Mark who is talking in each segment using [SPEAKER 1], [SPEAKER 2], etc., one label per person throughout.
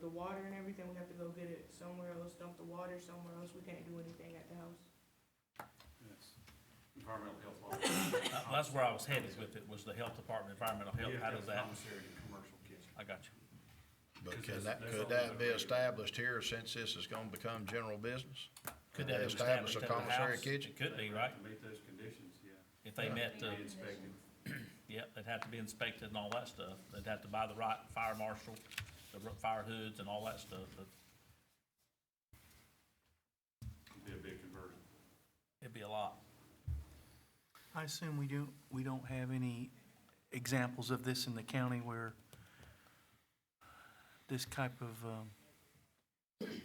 [SPEAKER 1] the water and everything, we have to go get it somewhere else, dump the water somewhere else, we can't do anything at the house.
[SPEAKER 2] Yes. Environmental health law.
[SPEAKER 3] Uh, That's where I was headed with it, was the health department, environmental health,
[SPEAKER 2] Yeah,
[SPEAKER 3] how does that,
[SPEAKER 2] Commissary and commercial kitchen.
[SPEAKER 3] I got you.
[SPEAKER 4] But
[SPEAKER 2] Because that's-
[SPEAKER 4] can that,
[SPEAKER 2] that's all
[SPEAKER 4] could that be
[SPEAKER 2] they're-
[SPEAKER 4] established here since this is gonna become general business?
[SPEAKER 3] Could
[SPEAKER 4] They
[SPEAKER 3] that
[SPEAKER 4] establish
[SPEAKER 3] establish
[SPEAKER 4] a
[SPEAKER 3] that the
[SPEAKER 4] commissary
[SPEAKER 3] house?
[SPEAKER 4] kitchen?
[SPEAKER 3] It could be, right?
[SPEAKER 2] To meet those conditions, yeah.
[SPEAKER 3] If they
[SPEAKER 4] Yeah.
[SPEAKER 3] met,
[SPEAKER 2] Be
[SPEAKER 3] the
[SPEAKER 2] inspected.
[SPEAKER 3] yep, they'd have to be inspected and all that stuff. They'd have to buy the right fire marshal, the r- fire hoods and all that stuff, but
[SPEAKER 2] It'd be a big conversion.
[SPEAKER 3] it'd be a lot.
[SPEAKER 5] I assume we don't, we don't have any examples of this in the county where this type of um,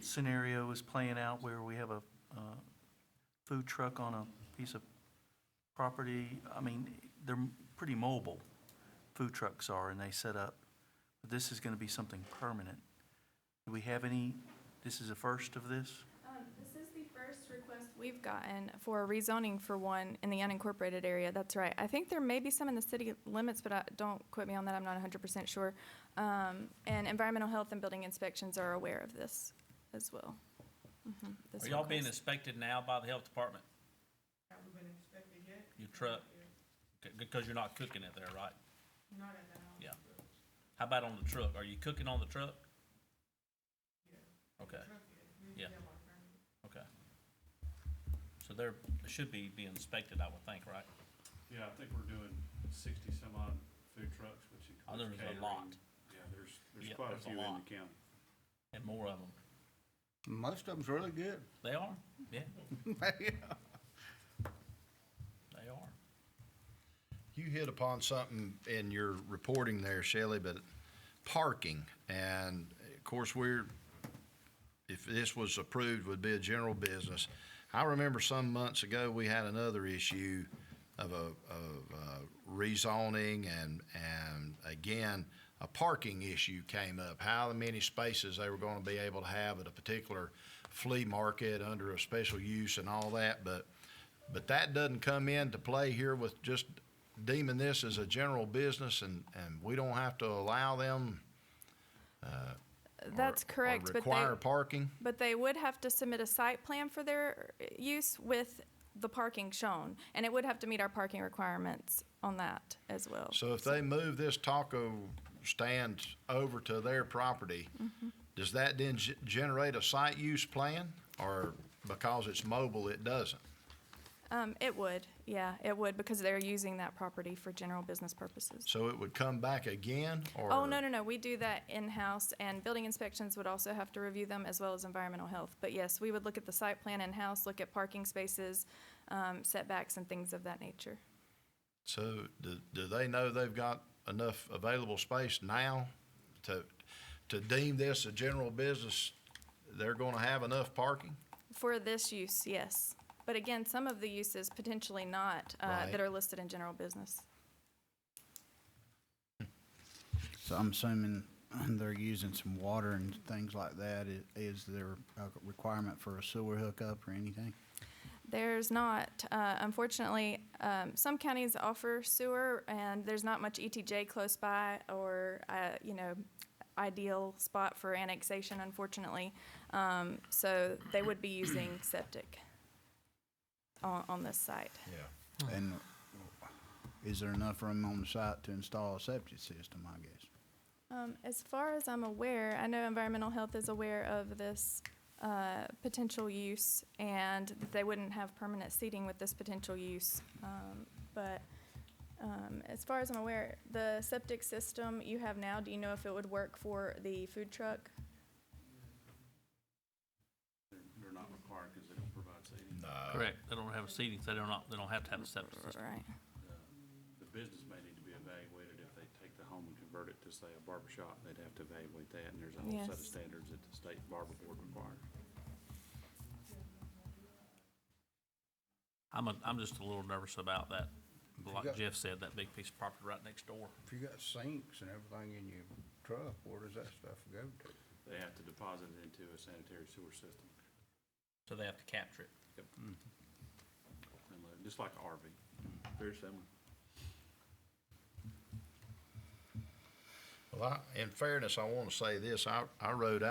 [SPEAKER 5] scenario is playing out where we have a uh, food truck on a piece of property. I mean, they're pretty mobile, food trucks are, and they set up. But this is going to be something permanent. Do we have any, this is a first of this?
[SPEAKER 6] Um, This is the first request we've gotten for rezoning for one in the unincorporated area, that's right. I think there may be some in the city limits, but I, don't quote me on that, I'm not hundred percent sure. Um, and environmental health and building inspections are aware of this as well. Mhm, this
[SPEAKER 3] Are y'all being
[SPEAKER 6] request.
[SPEAKER 3] inspected now by the health department,
[SPEAKER 1] Have we been inspected yet?
[SPEAKER 3] your truck? Because you're not cooking it there, right?
[SPEAKER 1] Not at the house.
[SPEAKER 3] Yeah. How about on the truck? Are you cooking on the truck? Okay, Yeah. okay. So they're, should be, be inspected, I would think, right?
[SPEAKER 2] Yeah, I think we're doing sixty some odd food trucks, which
[SPEAKER 3] Oh,
[SPEAKER 2] includes
[SPEAKER 3] there's a
[SPEAKER 2] catering.
[SPEAKER 3] lot.
[SPEAKER 2] Yeah, there's, there's
[SPEAKER 3] Yeah,
[SPEAKER 2] quite a
[SPEAKER 3] there's a
[SPEAKER 2] few in the
[SPEAKER 3] lot.
[SPEAKER 2] county.
[SPEAKER 3] And more of them.
[SPEAKER 7] Most of them's really good.
[SPEAKER 3] They are, yeah,
[SPEAKER 7] Yeah.
[SPEAKER 3] they are.
[SPEAKER 4] You hit upon something in your reporting there, Shelley, but parking. And of course, we're, if this was approved, would be a general business. I remember some months ago, we had another issue of a, of uh, rezoning and, and again, a parking issue came up. How many spaces they were going to be able to have at a particular flea market under a special use and all that. But, but that doesn't come into play here with just deeming this as a general business and, and we don't have to allow them or-
[SPEAKER 6] That's
[SPEAKER 4] or
[SPEAKER 6] correct, but they.
[SPEAKER 4] require parking?
[SPEAKER 6] But they would have to submit a site plan for their use with the parking shown, and it would have to meet our parking requirements on that as well.
[SPEAKER 4] So if they move this taco stand over to their property,
[SPEAKER 6] Mm-hmm.
[SPEAKER 4] does that then ge- generate a site use plan? Or because it's mobile, it doesn't?
[SPEAKER 6] Um, it would, yeah, it would, because they're using that property for general business purposes.
[SPEAKER 4] So it would come back again or?
[SPEAKER 6] Oh, no, no, no, we do that in-house, and building inspections would also have to review them, as well as environmental health. But yes, we would look at the site plan in-house, look at parking spaces, um, setbacks, and things of that nature.
[SPEAKER 4] So do, do they know they've got enough available space now to, to deem this a general business? They're going to have enough parking?
[SPEAKER 6] For this use, yes. But again, some of the uses potentially not, uh,
[SPEAKER 4] Right.
[SPEAKER 6] that are listed in general business.
[SPEAKER 7] So I'm assuming they're using some water and things like that. I- Is there a requirement for a sewer hookup or anything?
[SPEAKER 6] There's not, uh, unfortunately, um, some counties offer sewer, and there's not much ETJ close by or, uh, you know, ideal spot for annexation, unfortunately. Um, so they would be using septic on, on this site.
[SPEAKER 4] Yeah.
[SPEAKER 7] And is there enough room on the site to install a septic system, I guess?
[SPEAKER 6] Um, as far as I'm aware, I know environmental health is aware of this uh, potential use and that they wouldn't have permanent seating with this potential use. Um, but um, as far as I'm aware, the septic system you have now, do you know if it would work for the food truck?
[SPEAKER 2] They're, they're not required because they don't provide seating.
[SPEAKER 3] Correct, they don't have a seating, so they don't, they don't have to have a septic system.
[SPEAKER 6] Right.
[SPEAKER 2] The business may need to be evaluated if they take the home and convert it to, say, a barber shop. They'd have to evaluate that, and there's a whole set of
[SPEAKER 6] Yes.
[SPEAKER 2] standards that the state barber board requires.
[SPEAKER 3] I'm, a, I'm just a little nervous about that. Like Jeff said, that big piece of property right next door.
[SPEAKER 8] If you got sinks and everything in your truck, where does that stuff go to?
[SPEAKER 2] They have to deposit it into a sanitary sewer system,
[SPEAKER 3] So they have to capture it.
[SPEAKER 2] and load- just like a RV. Very similar.
[SPEAKER 4] Well, I, in fairness, I want to say this. I, I rode out.